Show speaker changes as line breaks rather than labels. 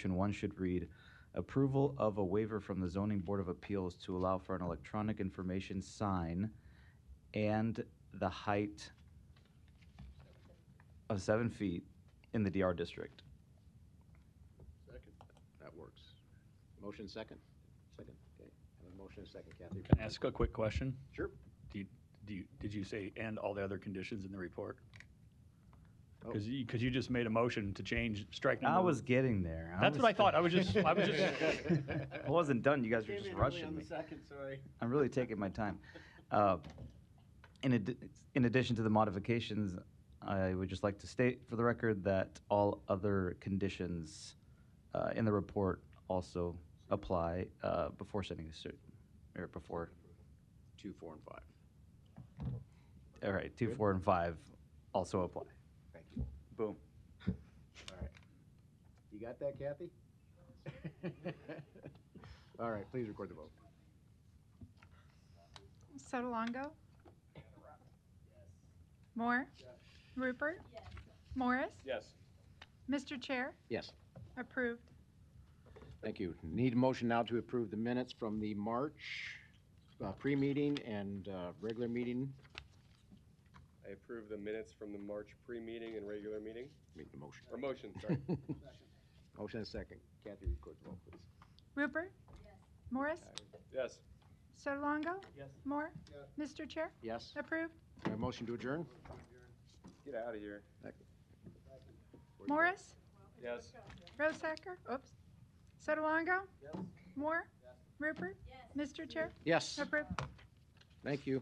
Section one should read, approval of a waiver from the zoning board of appeals to allow for an electronic information sign and the height of seven feet in the DR district.
Second. That works. Motion second? Second. Okay. Have a motion and second, Kathy.
Can I ask a quick question?
Sure.
Do you, did you say, and all the other conditions in the report?
Oh.
Because you, because you just made a motion to change strike number.
I was getting there.
That's what I thought. I was just, I was just,
I wasn't done. You guys were just rushing me.
second, sorry.
I'm really taking my time. Uh, In addi- in addition to the modifications, I would just like to state for the record that all other conditions uh, in the report also apply uh, before sending the suit, or before,
Two, four, and five.
all right, two, four, and five also apply.
Thank you.
Boom.
All right. You got that, Kathy? All right, please record the vote.
Sotolongo? Moore? Rupert? Morris?
yes.
Mr. Chair,
Yes.
approved.
Thank you. Need a motion now to approve the minutes from the March uh, pre-meeting and uh, regular meeting.
I approve the minutes from the March pre-meeting and regular meeting,
Make the motion.
or motion, sorry.
Motion and second. Kathy, record the vote, please.
Rupert? Morris?
Yes,
Sotolongo? Moore? Mr. Chair,
Yes.
approved.
A motion to adjourn?
get out of here.
Morris?
Yes.
Rosacker? Oops. Sotolongo? Moore? Rupert? Mr. Chair,
Yes.
approved.
Thank you.